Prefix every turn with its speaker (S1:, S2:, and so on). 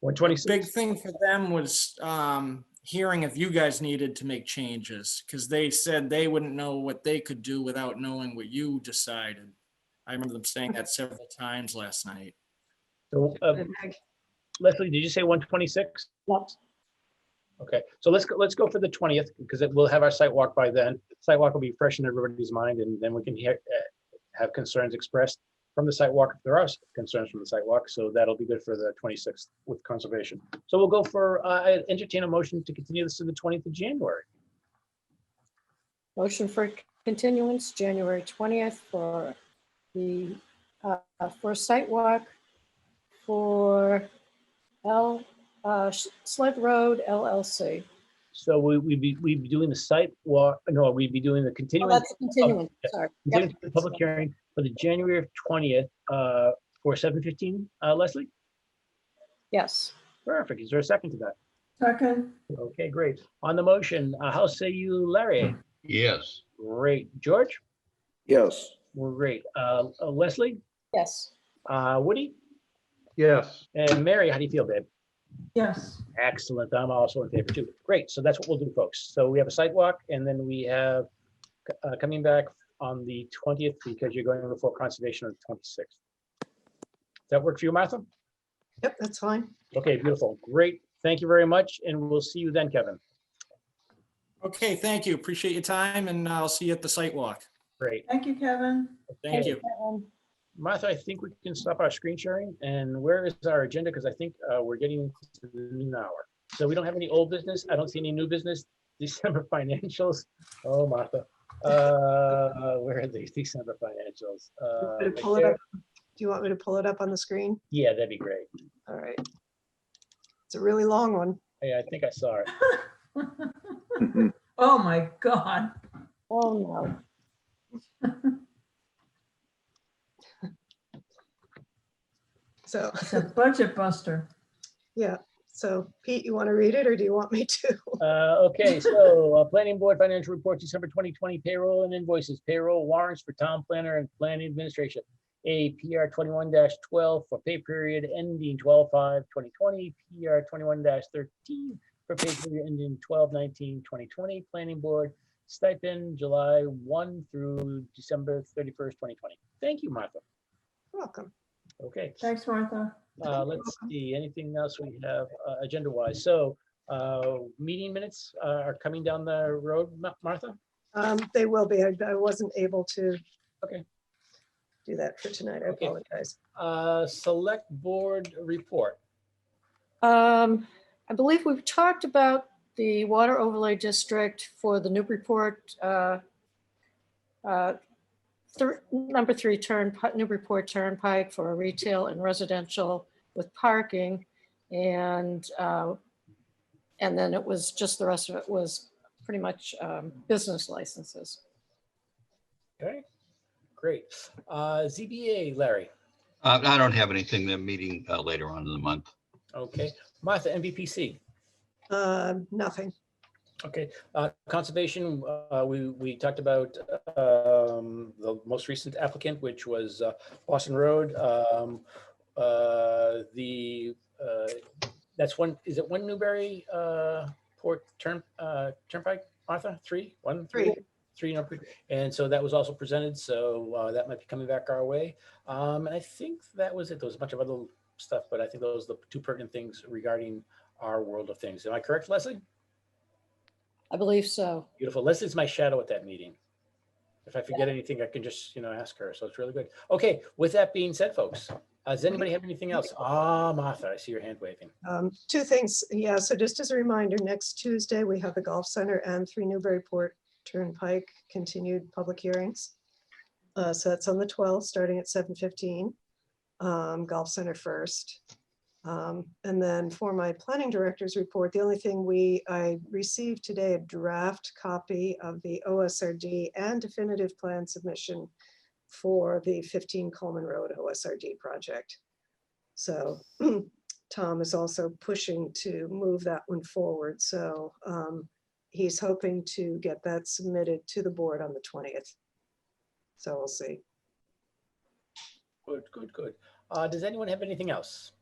S1: one twenty-six.
S2: Big thing for them was um, hearing if you guys needed to make changes, because they said they wouldn't know what they could do without knowing what you decided. I remember them saying that several times last night.
S1: So, uh, Leslie, did you say one twenty-six? Okay, so let's go, let's go for the twentieth, because it, we'll have our site walk by then. Site walk will be fresh in everybody's mind, and then we can hear, uh, have concerns expressed from the site walk if there are s- concerns from the site walk. So that'll be good for the twenty-sixth with conservation. So we'll go for, uh, I entertain a motion to continue this to the twentieth of January.
S3: Motion for continuance, January 20th for the, uh, for site walk for L, uh, Sled Road LLC.
S1: So we, we'd be, we'd be doing the site walk, no, we'd be doing the
S3: Oh,
S1: continuance.
S3: that's continuance, sorry. Yep.
S1: Continue the public hearing for the January twentieth, uh, for seven fifteen, uh, Leslie?
S3: Yes.
S1: Perfect. Is there a second to that?
S4: Second,
S1: Okay, great. On the motion, uh, how say you, Larry?
S5: Yes,
S1: Great. George?
S6: yes,
S1: Great. Uh, uh, Leslie?
S3: Yes.
S1: Uh, Woody?
S5: yes,
S1: And Mary, how do you feel, babe?
S4: yes,
S1: Excellent. I'm also in favor too. Great. So that's what we'll do, folks. So we have a sidewalk and then we have uh, coming back on the twentieth because you're going before conservation on the twenty-sixth. Does that work for you, Martha?
S7: Yep, that's fine.
S1: Okay, beautiful. Great. Thank you very much. And we'll see you then, Kevin.
S2: Okay, thank you. Appreciate your time and I'll see you at the site walk.
S1: Great.
S4: thank you, Kevin.
S2: Thank you.
S3: Um,
S1: Martha, I think we can stop our screen sharing. And where is our agenda? Because I think uh, we're getting to the noon hour. So we don't have any old business. I don't see any new business. December financials. Oh, Martha. Uh, Where are these December financials?
S7: You
S1: Uh,
S7: want me to pull
S1: right
S7: it
S1: there.
S7: up? Do you want me to pull it up on the screen?
S1: Yeah, that'd be great.
S7: All right. It's a really long one.
S1: Yeah, I think I saw it.
S4: Oh, my God.
S3: Oh, no.
S7: So,
S4: It's a budget buster.
S7: yeah. So Pete, you want to read it or do you want me to?
S1: Uh, okay, so, uh, planning board financial report, December twenty twenty payroll and invoices, payroll warrants for town planner and planning administration. A PR twenty-one twelve for pay period ending 12-5-2020. PR twenty-one thirteen for pay period ending 12-19-2020. planning board stipend July one through December thirty-first, twenty twenty. Thank you, Martha.
S7: Welcome.
S1: Okay.
S4: Thanks, Martha.
S1: Uh, let's see, anything else we have uh, agenda-wise? So uh, meeting minutes uh, are coming down the road, Ma- Martha?
S7: Um, They will be. I I wasn't able to.
S1: Okay.
S7: Do that for tonight. I
S1: Okay.
S7: apologize.
S1: Uh, Select Board Report.
S3: Um, I believe we've talked about the water overlay district for the Newburyport, uh, uh, thir- number three turn, Newburyport Turnpike for retail and residential with parking. And, uh, and then it was just the rest of it was pretty much um, business licenses.
S1: Okay, great. Uh, ZBA, Larry.
S5: Uh, I don't have anything, they're meeting uh, later on in the month.
S1: Okay, Martha, MVPC.
S7: Um, Nothing.
S1: Okay, uh, Conservation, uh, we, we talked about um, the most recent applicant, which was uh, Boston Road. Um, uh, The, uh, that's one, is it one Newberry uh, Port Turn, uh, Turnpike, Martha? Three, one, three,
S7: Three.
S1: three number. And so that was also presented, so uh, that might be coming back our way. Um, And I think that was it. There was a bunch of other stuff, but I think those are the two pertinent things regarding our world of things. Am I correct, Leslie?
S3: I believe so.
S1: Beautiful. Leslie's my shadow at that meeting. If I forget anything, I can just, you know, ask her. So it's really good. Okay, with that being said, folks, uh, does anybody have anything else? Ah, Martha, I see your hand waving.
S7: Um, Two things. Yeah. So just as a reminder, next Tuesday, we have the Golf Center and Three Newburyport Turnpike continued public hearings. Uh, So that's on the 12th, starting at 7:15. um, Golf Center first. Um, And then for my planning director's report, the only thing we, I received today a draft copy of the OSRD and definitive plan submission for the 15 Coleman Road OSRD project. So Tom is also pushing to move that one forward. So um, he's hoping to get that submitted to the board on the 20th. So we'll see.
S1: Good, good, good. Uh, does anyone have anything else?